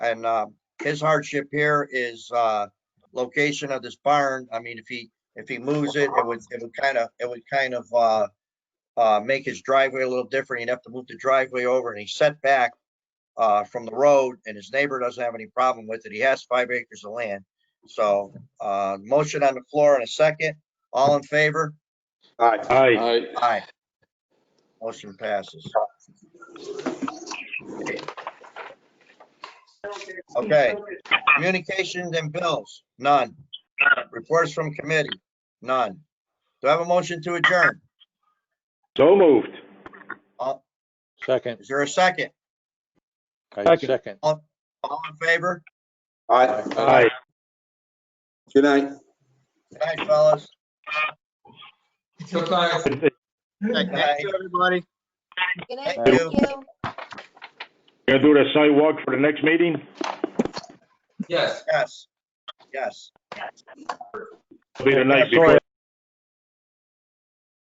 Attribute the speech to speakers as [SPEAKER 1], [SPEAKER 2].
[SPEAKER 1] And uh, his hardship here is uh, location of this barn. I mean, if he, if he moves it, it would, it would kind of, it would kind of uh, uh, make his driveway a little different. He'd have to move the driveway over and he's set back uh, from the road and his neighbor doesn't have any problem with it. He has five acres of land. So uh, motion on the floor in a second. All in favor?
[SPEAKER 2] Aye.
[SPEAKER 3] Aye.
[SPEAKER 1] Aye. Motion passes. Okay, communications and bills, none. Reports from committee, none. Do I have a motion to adjourn?
[SPEAKER 2] So moved.
[SPEAKER 4] Second,
[SPEAKER 1] Is there a second?
[SPEAKER 4] I
[SPEAKER 2] Second.
[SPEAKER 4] second.
[SPEAKER 1] All in favor?
[SPEAKER 3] Aye.
[SPEAKER 2] Aye.
[SPEAKER 3] Good night.
[SPEAKER 1] Good night, fellas.
[SPEAKER 5] Good night.
[SPEAKER 1] Good night.
[SPEAKER 5] Thank you, everybody.
[SPEAKER 6] Good night,
[SPEAKER 1] Thank
[SPEAKER 6] thank
[SPEAKER 1] you.
[SPEAKER 6] you.
[SPEAKER 2] Gonna do the site walk for the next meeting?
[SPEAKER 5] Yes.
[SPEAKER 1] Yes, yes.
[SPEAKER 2] It'll be the night before.
[SPEAKER 4] Sorry.